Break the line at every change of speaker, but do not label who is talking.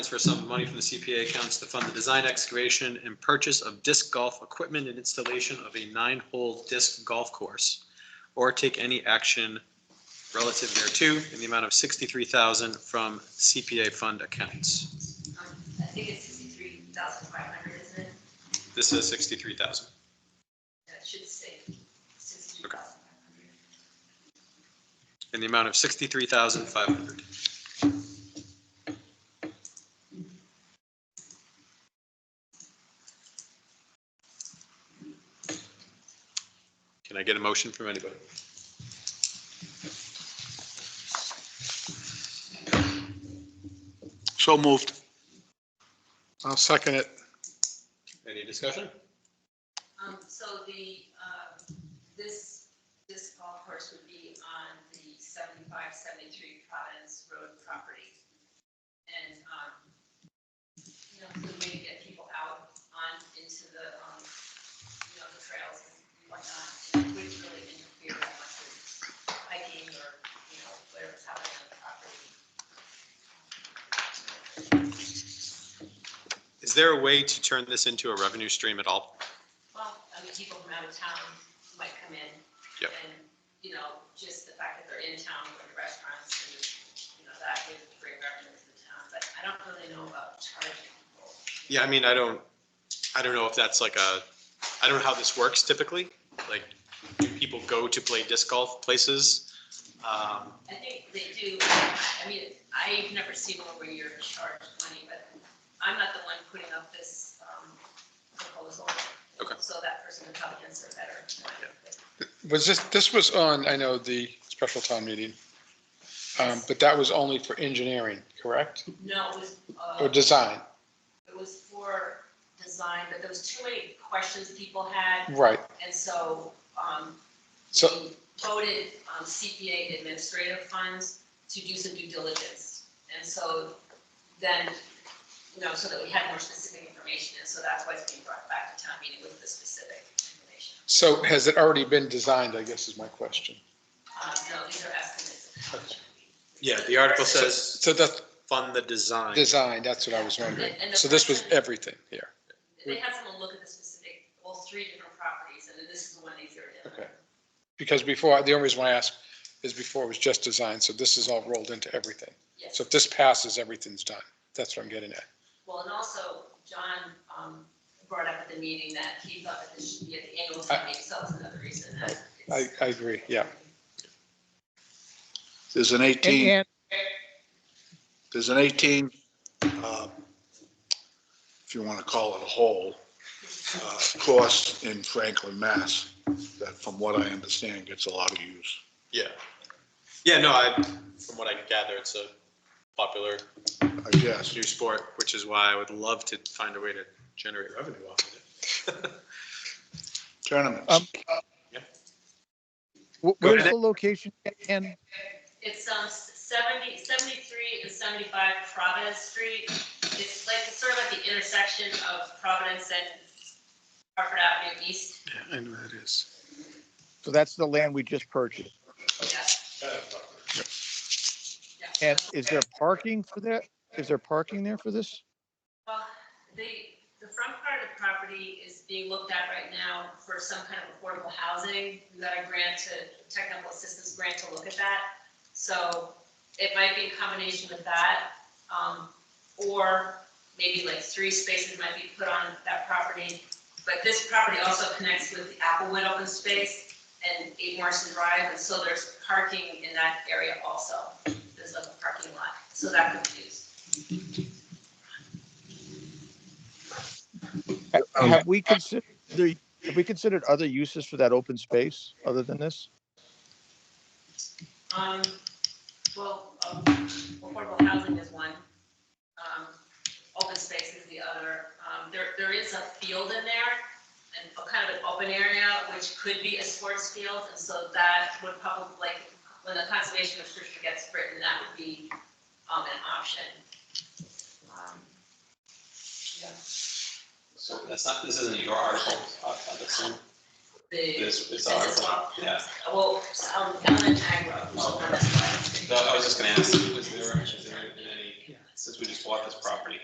transfer some of money from the CPA accounts to fund the design, excavation, and purchase of disc golf equipment and installation of a nine-hole disc golf course, or take any action relative thereto in the amount of sixty-three thousand from CPA fund accounts.
Um, I think it's sixty-three thousand five hundred, isn't it?
This is sixty-three thousand.
No, It should say sixty-three thousand five hundred.
in the amount of sixty-three thousand five hundred. Can I get a motion from anybody?
So moved. I'll second it.
Any discussion?
Um, so the, uh, this, this golf course would be on the seventy-five, seventy-three Providence Road property. And, um, you know, the way to get people out on into the, um, you know, the trails and whatnot, and it wouldn't really interfere that much with hiking or, you know, whatever's happening on the property.
Is there a way to turn this into a revenue stream at all?
Well, I mean, people from out of town might come in.
Yep.
And, you know, just the fact that they're in town, going to restaurants, and, you know, that would bring revenue to the town, but I don't really know about charging people.
Yeah, I mean, I don't, I don't know if that's like a, I don't know how this works typically. Like, do people go to play disc golf places? Um,
I think they do, I mean, I've never seen one where you're charged money, but I'm not the one putting up this, um, proposal.
Okay.
So that person would probably answer better. than I could.
Was this, this was on, I know, the special town meeting, um, but that was only for engineering, correct?
No, it was, uh.
Oh,
Or design,
It was for design, but there was too many questions people had,
right.
and so, um,
So-
we voted um, CPA administrative funds to do some due diligence. And so then, you know, so that we had more specific information, and so that's why it's being brought back to town meeting with the specific information.
So has it already been designed, I guess is my question.
Um, no, these are estimates. of how much it would be.
Yeah, the article says
So that's
fund the design.
design, that's what I was wondering. So this was everything here.
They had someone look at the specific, well, three different properties, and then this is the one they zeroed in on.
Okay. Because before, the only reason why I asked is before it was just design, so this is all rolled into everything.
Yes.
So if this passes, everything's done. That's what I'm getting at.
Well, and also, John um, brought up at the meeting that he thought that this should be at the annual
I-
town meeting, so that's another reason that.
I,
it's-
I agree, yeah.
There's an 18,
And
there's an 18, uh, if you want to call it a hole, uh, course in Franklin, Mass, that from what I understand gets a lot of use.
Yeah. Yeah, no, I, from what I can gather, it's a popular
I guess,
new sport, which is why I would love to find a way to generate revenue off of it.
tournaments.
Um, wh- where's the location? And
It's um, 70, 73 and 75 Providence Street. It's like, it's sort of at the intersection of Providence and Hartford Avenue East.
I know that is.
so that's the land we just purchased.
Yeah. Yeah.
And is there parking for that? Is there parking there for this?
Well, the, the front part of the property is being looked at right now for some kind of affordable housing. We got a grant to, technical assistance grant to look at that. So it might be in combination with that, um, or maybe like three spaces might be put on that property. But this property also connects with the Applewood open space and Eight Morrison Drive, and so there's parking in that area also. There's like a parking lot, so that could be used.
Ha- Have we considered the, have we considered other uses for that open space other than this?
Um, well, um, affordable housing is one. Um, open space is the other. Um, there, there is a field in there and a kind of an open area, which could be a sports field. And so that would probably, like, when the conservation restriction gets written, that would be, um, an option. Um, yeah.
That's not, this isn't your article, uh, that's in-
The.
this, it's our, article, yeah.
Well, um, Ellen Agro, well, that's why.
No, I was just gonna ask, was there, is there any since we just bought this property.